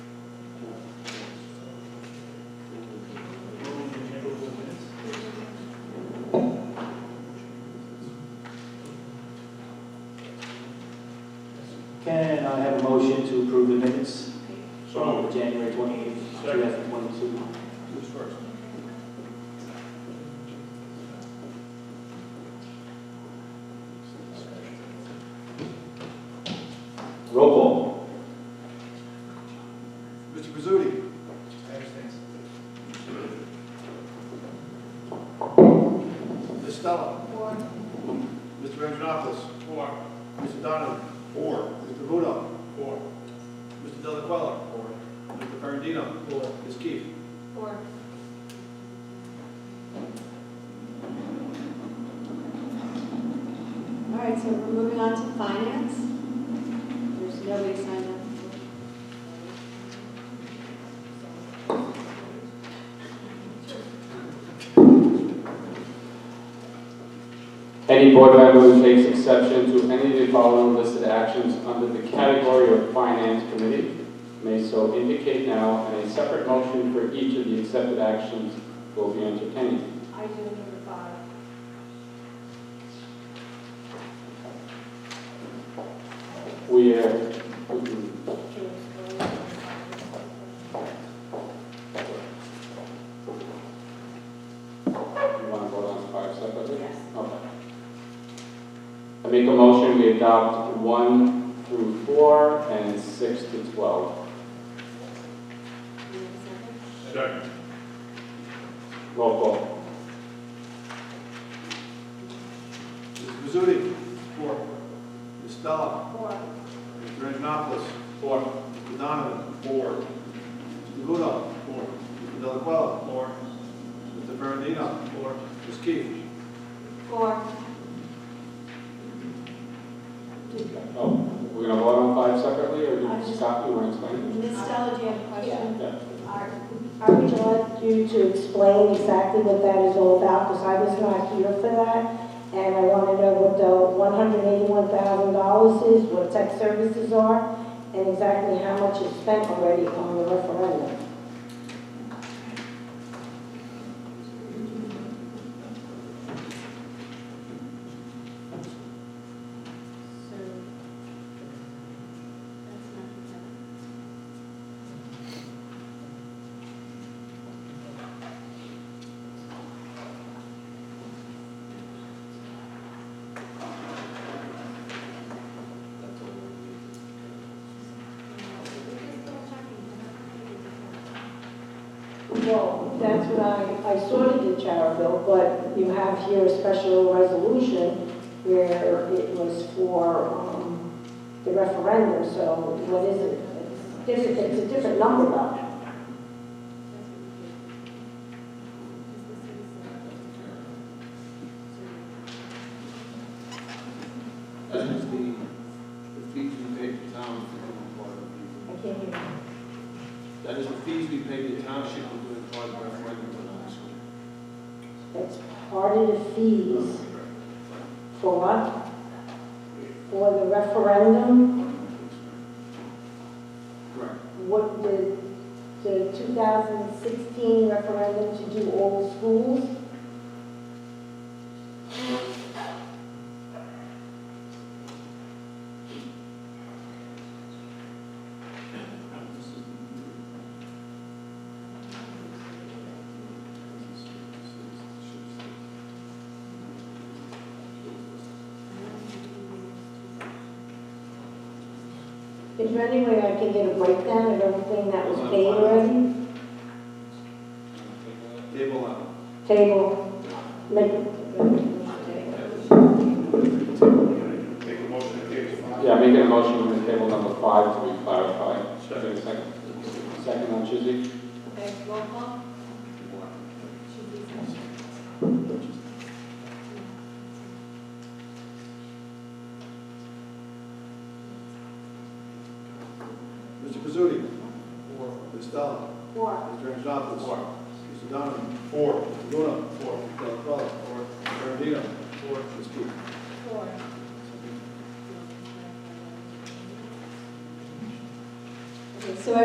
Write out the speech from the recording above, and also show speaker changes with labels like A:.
A: Now I have a motion to approve the minutes
B: So moved.
A: from January 28th, 2022.
B: Who's first?
A: Roll call.
B: Mr. Pizzuti. Ms. Stella. Four. Mr. Andronakis. Four. Mr. Donovan. Four. Mr. Vudo. Four. Mr. Delacuilla. Four. Mr. Ferrandino. Four. Ms. Keefe.
C: Four. All right, so we're moving on to finance. There's nobody signed up.
D: Any board member who takes exception to any of the following listed actions under the category of Finance Committee may so indicate now, and a separate motion for each of the accepted actions will be entertained.
C: I do number five.
D: We mm-hmm, are, You want to vote on five separately?
C: Yes.
D: Okay. I make a motion, we adopt one through four and six to 12.
B: Second.
D: Roll call.
B: Mr. Pizzuti. Four. Ms. Stella.
C: Four.
B: Mr. Andronakis. Four. Mr. Donovan. Four. Mr. Vudo. Four. Mr. Delacuilla. Four. Mr. Ferrandino. Four. Ms. Keefe.
C: Four.
D: Oh, we're going to vote on five separately, or
C: I
D: do
C: just-
D: Scott, you want to explain?
C: Ms. Stella, do you have a question?
D: Yeah.
C: Are,
E: I would like you to explain exactly what that is all about, because I was not here for that. And I want to know what the one hundred eighty-one thousand dollars is, what tech services are, and exactly how much is spent already on the referendum.
C: So, that's not consent.
E: Well, that's what I, I sort of did, Tara, Bill, but you have here a special resolution where it was for, um, the referendum, so what is it? It's different, it's a different number though.
F: That is the, the fees we pay to towns for doing part of the,
E: I can't hear.
F: that is the fees we pay to township for doing part of the referendum on high school.
E: That's part of the fees for what? For the referendum,
F: Correct.
E: what the, the 2016 referendum to do all schools? Is there any way I can get a breakdown of everything that was paid already?
B: Table out.
E: Table, make,
B: Make a motion to table five.
D: Yeah, making a motion on the table number five to be clarified. Second, second. Second on Tuesday?
C: Okay, roll call? Should be second.
B: Mr. Pizzuti. Four. Ms. Stella.
C: Four.
B: Mr. Andronakis. Four. Mr. Donovan. Four. Mr. Luna. Four. Mr. Delacuilla. Four. Mr. Ferrandino. Four. Ms. Keefe.
C: Four.